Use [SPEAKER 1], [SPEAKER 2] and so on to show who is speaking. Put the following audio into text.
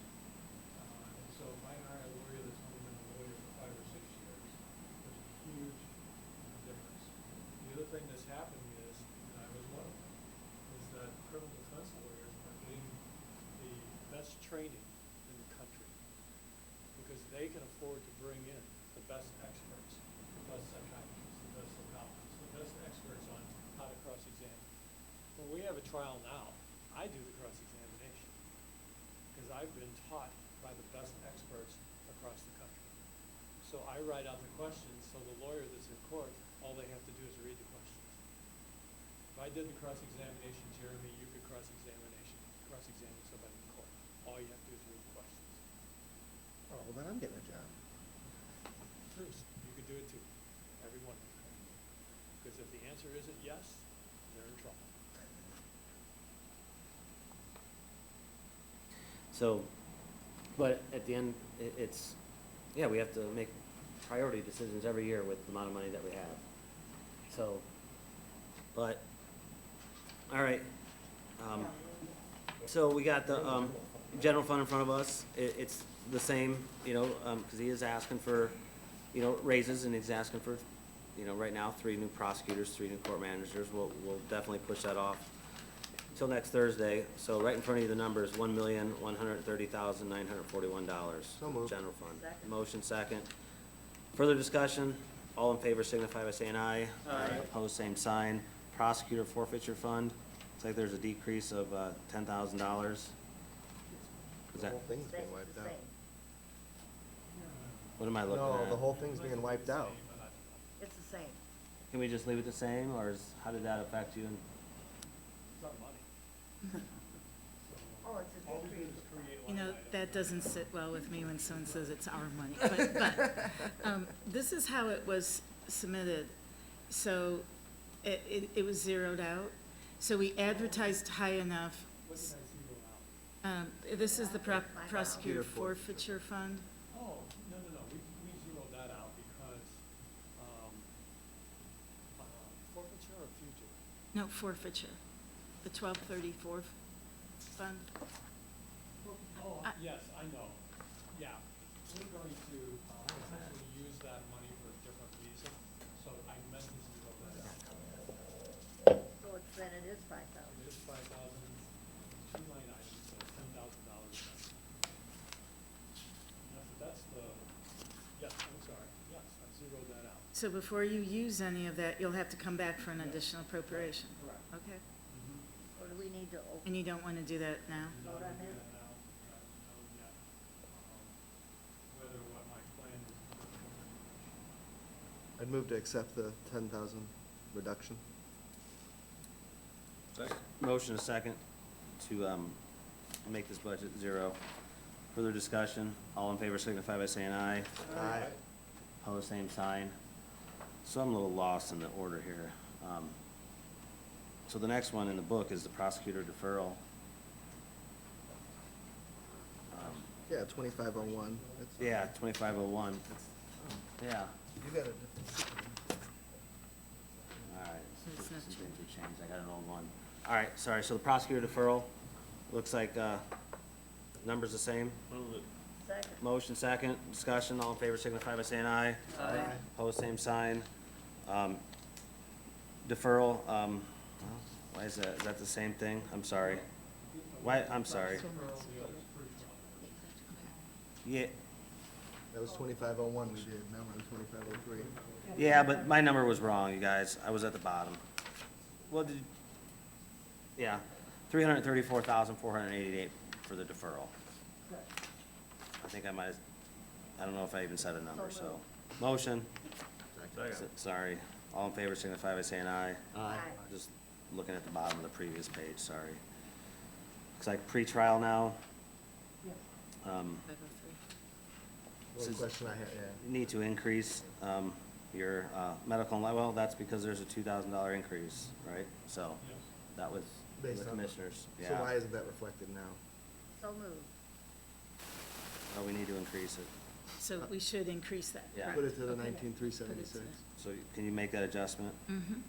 [SPEAKER 1] Uh, training in the country, because they can afford to bring in the best experts, the best psychiatrists, the best psychologists, the best experts on how to cross-examine. When we have a trial now, I do the cross-examination, because I've been taught by the best experts across the country. So I write out the questions, so the lawyer that's in court, all they have to do is read the questions. If I did the cross-examination, Jeremy, you could cross-examination, cross-examine somebody in court. All you have to do is read the questions.
[SPEAKER 2] Oh, well, then I'm getting a job.
[SPEAKER 1] Bruce, you could do it too, every one of you. Because if the answer isn't yes, they're in trouble.
[SPEAKER 3] So, but at the end, i it's, yeah, we have to make priority decisions every year with the amount of money that we have. So, but, all right, um, so we got the, um, general fund in front of us, it, it's the same, you know, um, cause he is asking for, you know, raises and he's asking for, you know, right now, three new prosecutors, three new court managers, we'll, we'll definitely push that off till next Thursday, so right in front of you, the number is one million, one hundred thirty thousand, nine hundred forty-one dollars.
[SPEAKER 2] So moved.
[SPEAKER 3] General fund.
[SPEAKER 4] Second.
[SPEAKER 3] Motion second. Further discussion, all in favor signify by saying aye.
[SPEAKER 4] Aye.
[SPEAKER 3] Opposed, same sign. Prosecutor forfeiture fund, looks like there's a decrease of, uh, ten thousand dollars. Is
[SPEAKER 2] The
[SPEAKER 3] that,
[SPEAKER 2] whole thing's being
[SPEAKER 4] Same,
[SPEAKER 2] wiped
[SPEAKER 4] the
[SPEAKER 2] out.
[SPEAKER 4] same.
[SPEAKER 3] what am I looking
[SPEAKER 2] No,
[SPEAKER 3] at?
[SPEAKER 2] the whole thing's being wiped out.
[SPEAKER 4] It's the same.
[SPEAKER 3] Can we just leave it the same, or is, how did that affect you?
[SPEAKER 1] It's not money.
[SPEAKER 4] Oh, it's a
[SPEAKER 1] All we do
[SPEAKER 4] decrease.
[SPEAKER 1] is create
[SPEAKER 5] You
[SPEAKER 1] line
[SPEAKER 5] know,
[SPEAKER 1] items.
[SPEAKER 5] that doesn't sit well with me when someone says it's our money, but, but, um, this is how it was submitted. So it, it, it was zeroed out, so we advertised high enough.
[SPEAKER 1] What did I zero out?
[SPEAKER 5] Um, this is the pro-
[SPEAKER 2] Prosecutor
[SPEAKER 5] prosecutor
[SPEAKER 2] forfeiture.
[SPEAKER 5] forfeiture fund.
[SPEAKER 1] Oh, no, no, no, we, we zeroed that out because, um, uh, forfeiture or fugitive?
[SPEAKER 5] No, forfeiture, the twelve thirty-four fund.
[SPEAKER 1] Oh,
[SPEAKER 5] I-
[SPEAKER 1] yes, I know, yeah. We're going to uh, essentially use that money for a different reason, so I meant to zero that out.
[SPEAKER 4] So it's, then it is five
[SPEAKER 1] It
[SPEAKER 4] thousand.
[SPEAKER 1] is five thousand, two line items, so ten thousand dollars. That's the, yes, I'm sorry, yes, I zeroed that out.
[SPEAKER 5] So before you use any of that, you'll have to come back for an additional appropriation.
[SPEAKER 1] Correct.
[SPEAKER 5] Okay,
[SPEAKER 4] Or do we need to
[SPEAKER 5] and
[SPEAKER 4] open?
[SPEAKER 5] you don't wanna do that now?
[SPEAKER 1] Mm-hmm.
[SPEAKER 4] Vote on it?
[SPEAKER 1] Um, Whether what my plan is.
[SPEAKER 2] I'd move to accept the ten thousand reduction.
[SPEAKER 3] Motion a second to, um, make this budget zero. Further discussion, all in favor signify by saying aye.
[SPEAKER 2] Aye.
[SPEAKER 3] Pose same sign. So I'm a little lost in the order here. Um, So the next one in the book is the prosecutor deferral. Um,
[SPEAKER 2] Yeah, twenty-five oh one.
[SPEAKER 3] Yeah, twenty-five oh one. Yeah,
[SPEAKER 2] You got a different.
[SPEAKER 3] all right.
[SPEAKER 5] So it's
[SPEAKER 3] Some
[SPEAKER 5] not
[SPEAKER 3] things
[SPEAKER 5] changed.
[SPEAKER 3] have changed. I got an old one. All right, sorry, so the prosecutor deferral, looks like, uh, number's the same?
[SPEAKER 4] Second.
[SPEAKER 3] Motion second, discussion, all in favor signify by saying aye.
[SPEAKER 4] Aye.
[SPEAKER 3] Pose same sign. Um, Deferral, um, why is that, is that the same thing? I'm sorry. Why, I'm sorry. Yeah,
[SPEAKER 2] That was twenty-five oh one we did, now we're on twenty-five oh three.
[SPEAKER 3] yeah, but my number was wrong, you guys. I was at the bottom. Well, did, yeah, three hundred and thirty-four thousand, four hundred and eighty-eight for the deferral. I think I might, I don't know if I even said a number, so. Motion. S- Sorry. All in favor signify by saying aye.
[SPEAKER 4] Aye.
[SPEAKER 3] Just looking at the bottom of the previous page, sorry. Looks like pretrial now. Um,
[SPEAKER 5] Five oh three.
[SPEAKER 2] Well, the
[SPEAKER 3] Since-
[SPEAKER 2] question I had, yeah.
[SPEAKER 3] Need to increase um, your uh, medical and, li- well, that's because there's a two thousand dollar increase, right? So that was the
[SPEAKER 2] Based on-
[SPEAKER 3] commissioners,
[SPEAKER 2] So why
[SPEAKER 3] yeah.
[SPEAKER 2] isn't that reflected now?
[SPEAKER 4] So moved.
[SPEAKER 3] Oh, we need to increase it.
[SPEAKER 5] So we should increase that.
[SPEAKER 3] Yeah.
[SPEAKER 2] Put it to the nineteen three seventy-six.
[SPEAKER 3] So you- can you make that adjustment?
[SPEAKER 5] Mm-hmm.
[SPEAKER 2] Oh,